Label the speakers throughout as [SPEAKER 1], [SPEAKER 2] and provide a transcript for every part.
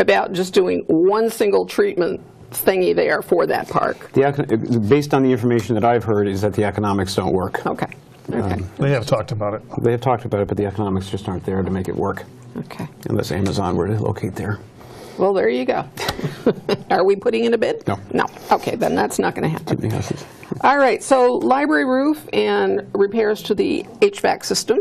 [SPEAKER 1] about just doing one single treatment thingy there for that park.
[SPEAKER 2] The, econ- based on the information that I've heard, is that the economics don't work.
[SPEAKER 1] Okay, okay,
[SPEAKER 2] Um.
[SPEAKER 3] They have talked about it.
[SPEAKER 2] They have talked about it, but the economics just aren't there to make it work,
[SPEAKER 1] okay.
[SPEAKER 2] unless Amazon were to locate there.
[SPEAKER 1] Well, there you go. Are we putting in a bid?
[SPEAKER 2] No.
[SPEAKER 1] No, okay, then that's not going to happen.
[SPEAKER 2] Big houses.
[SPEAKER 1] All right, so library roof and repairs to the HVAC system.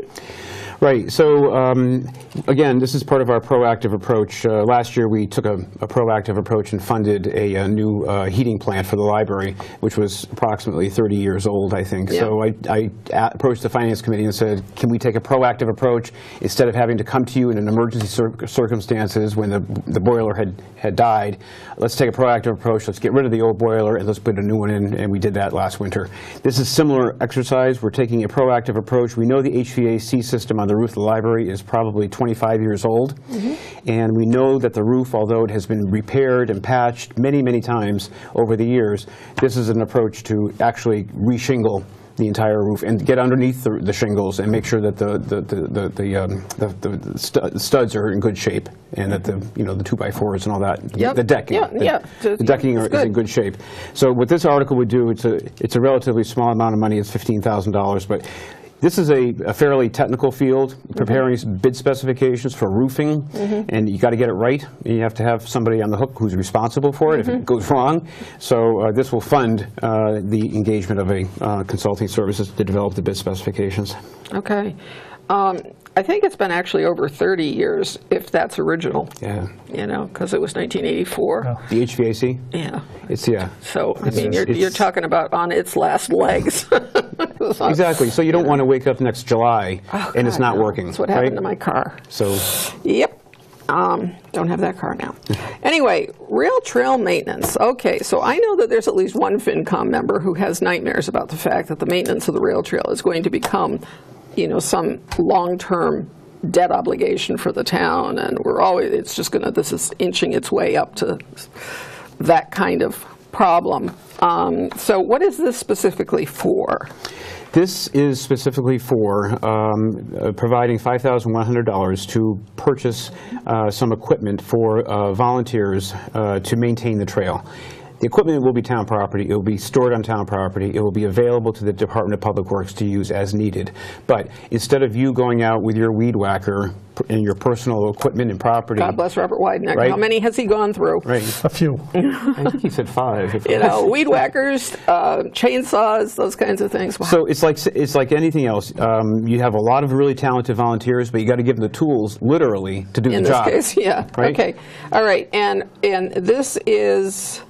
[SPEAKER 2] Right, so um, again, this is part of our proactive approach. Uh, Last year, we took a a proactive approach and funded a uh, new uh, heating plant for the library, which was approximately 30 years old, I think.
[SPEAKER 1] Yeah.
[SPEAKER 2] So I I a- approached the finance committee and said, can we take a proactive approach instead of having to come to you in an emergency cir- circumstances when the the boiler had had died? Let's take a proactive approach, let's get rid of the old boiler and let's put a new one in, and we did that last winter. This is similar exercise, we're taking a proactive approach. We know the HVAC system on the roof of the library is probably 25 years old, and we know that the roof, although it has been repaired and patched many, many times over the years, this is an approach to actually reshingle the entire roof and get underneath the the shingles and make sure that the, the, the- the, the, um, the- the stu- studs are in good shape and that the, you know, the two-by-fours and all that,
[SPEAKER 1] Yep.
[SPEAKER 2] the decking.
[SPEAKER 1] Yeah,
[SPEAKER 2] the-
[SPEAKER 1] yeah.
[SPEAKER 2] The decking are-
[SPEAKER 1] It's
[SPEAKER 2] is in
[SPEAKER 1] good.
[SPEAKER 2] good shape. So what this article would do, it's a, it's a relatively small amount of money, it's $15,000, but this is a a fairly technical field, preparing
[SPEAKER 1] Mm-hmm.
[SPEAKER 2] s- bid specifications for roofing, and you got to get it right, and you have to have somebody on the hook who's responsible for it if
[SPEAKER 1] Mm-hmm.
[SPEAKER 2] it goes wrong. So uh, this will fund uh, the engagement of a uh, consulting services to develop the bid specifications.
[SPEAKER 1] Okay. Um, I think it's been actually over 30 years, if that's original,
[SPEAKER 2] Yeah.
[SPEAKER 1] you know, because it was 1984.
[SPEAKER 2] The HVAC,
[SPEAKER 1] Yeah.
[SPEAKER 2] it's, yeah.
[SPEAKER 1] So, I
[SPEAKER 2] It's-
[SPEAKER 1] mean, you're,
[SPEAKER 2] it's-
[SPEAKER 1] you're talking about on its last legs.
[SPEAKER 2] Exactly, so you don't want to wake up next July and it's
[SPEAKER 1] Oh. God,
[SPEAKER 2] not
[SPEAKER 1] no.
[SPEAKER 2] working,
[SPEAKER 1] That's what happened
[SPEAKER 2] right?
[SPEAKER 1] to my car.
[SPEAKER 2] So,
[SPEAKER 1] Yep. Um, don't have that car now. Anyway, rail trail maintenance. Okay, so I know that there's at least one FinCom member who has nightmares about the fact that the maintenance of the rail trail is going to become, you know, some long-term debt obligation for the town, and we're always, it's just gonna, this is inching its way up to that kind of problem. Um, so what is this specifically for?
[SPEAKER 2] This is specifically for um, uh, providing $5,100 to purchase uh, some equipment for uh, volunteers uh, to maintain the trail. The equipment will be town property, it will be stored on town property, it will be available to the Department of Public Works to use as needed. But instead of you going out with your weed whacker and your personal equipment and property.
[SPEAKER 1] God bless Robert Wydeneck.
[SPEAKER 2] Mm. Right.
[SPEAKER 1] How many has he gone through?
[SPEAKER 2] Right,
[SPEAKER 3] A few.
[SPEAKER 1] Mm-hmm.
[SPEAKER 2] I think he said five. if-
[SPEAKER 1] you know, weed whackers, uh, chainsaws, those kinds of things.
[SPEAKER 2] So it's like it's like anything else. Um, you have a lot of really talented volunteers, but you got to give them the tools, literally, to do
[SPEAKER 1] in this
[SPEAKER 2] the job.
[SPEAKER 1] case, yeah.
[SPEAKER 2] Right?
[SPEAKER 1] Okay. All right. And and this is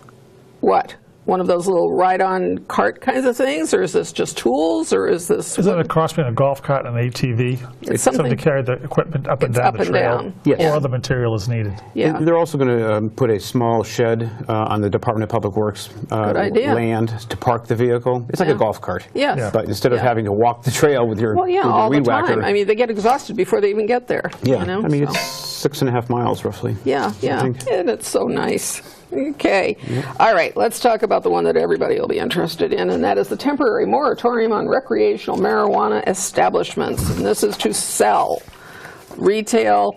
[SPEAKER 1] what one of those little ride-on cart kinds of things, or is this just tools, or is this
[SPEAKER 3] Is that a cross between a golf cart and an ATV?
[SPEAKER 1] It's
[SPEAKER 3] Something to
[SPEAKER 1] something-
[SPEAKER 3] carry the equipment up and
[SPEAKER 1] It's
[SPEAKER 3] down
[SPEAKER 1] up
[SPEAKER 3] the
[SPEAKER 1] and
[SPEAKER 3] trail?
[SPEAKER 1] down. Yes.
[SPEAKER 3] Or other material is needed?
[SPEAKER 1] yeah?
[SPEAKER 2] And They're also going to um, put a small shed uh, on the Department of Public Works uh,
[SPEAKER 1] Good idea.
[SPEAKER 2] land to park the vehicle. It's like
[SPEAKER 1] Yeah.
[SPEAKER 2] a golf cart.
[SPEAKER 1] Yes.
[SPEAKER 3] Yeah.
[SPEAKER 2] But instead of
[SPEAKER 1] Yeah.
[SPEAKER 2] having to walk the trail with your,
[SPEAKER 1] Well, yeah,
[SPEAKER 2] with your
[SPEAKER 1] all the
[SPEAKER 2] weed
[SPEAKER 1] time.
[SPEAKER 2] whacker.
[SPEAKER 1] I mean, they get exhausted before they even get there.
[SPEAKER 2] yeah.
[SPEAKER 1] You know?
[SPEAKER 2] I mean,
[SPEAKER 1] so.
[SPEAKER 2] it's six and a half miles roughly.
[SPEAKER 1] Yeah, yeah.
[SPEAKER 2] think.
[SPEAKER 1] And it's so nice. Okay. All right, let's talk about the one that everybody will be interested in, and that is the temporary moratorium on recreational marijuana establishments. And this is to sell retail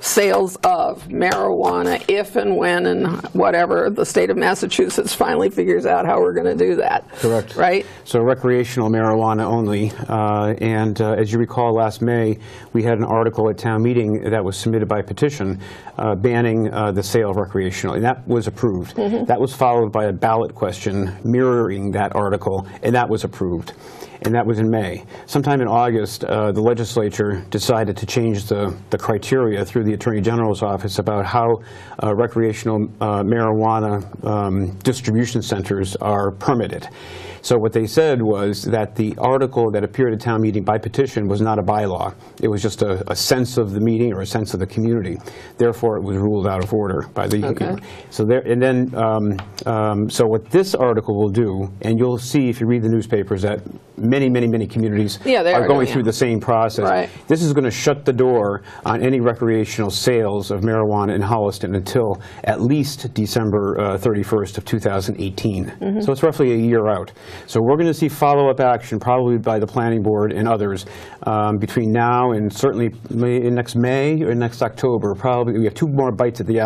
[SPEAKER 1] sales of marijuana if and when and whatever the state of Massachusetts finally figures out how we're going to do that.
[SPEAKER 2] Correct.
[SPEAKER 1] Right?
[SPEAKER 2] So recreational marijuana only. uh, And uh, as you recall, last May, we had an article at town meeting that was submitted by petition uh, banning uh, the sale of recreational, and that was approved. That was followed by a ballot question mirroring that article, and that was approved. And that was in May. Sometime in August, uh, the legislature decided to change the the criteria through the Attorney General's office about how uh, recreational uh, marijuana um, distribution centers are permitted. So what they said was that the article that appeared at town meeting by petition was not a bylaw. It was just a, a sense of the meeting or a sense of the community. Therefore, it was ruled out of order by the. E
[SPEAKER 1] Okay.
[SPEAKER 2] So there, and then, um, um, so what this article will do, and you'll see if you read the newspapers that many, many, many communities
[SPEAKER 1] Yeah, they are
[SPEAKER 2] going
[SPEAKER 1] doing
[SPEAKER 2] through
[SPEAKER 1] it.
[SPEAKER 2] the same process.
[SPEAKER 1] Right.
[SPEAKER 2] This is going to shut the door on any recreational sales of marijuana in Holliston until at least December uh, 31st of 2018. So it's roughly a year out. So we're going to see follow-up action, probably by the planning board and others, um, between now and certainly May- next May or next October, probably, we have two more bites at the apple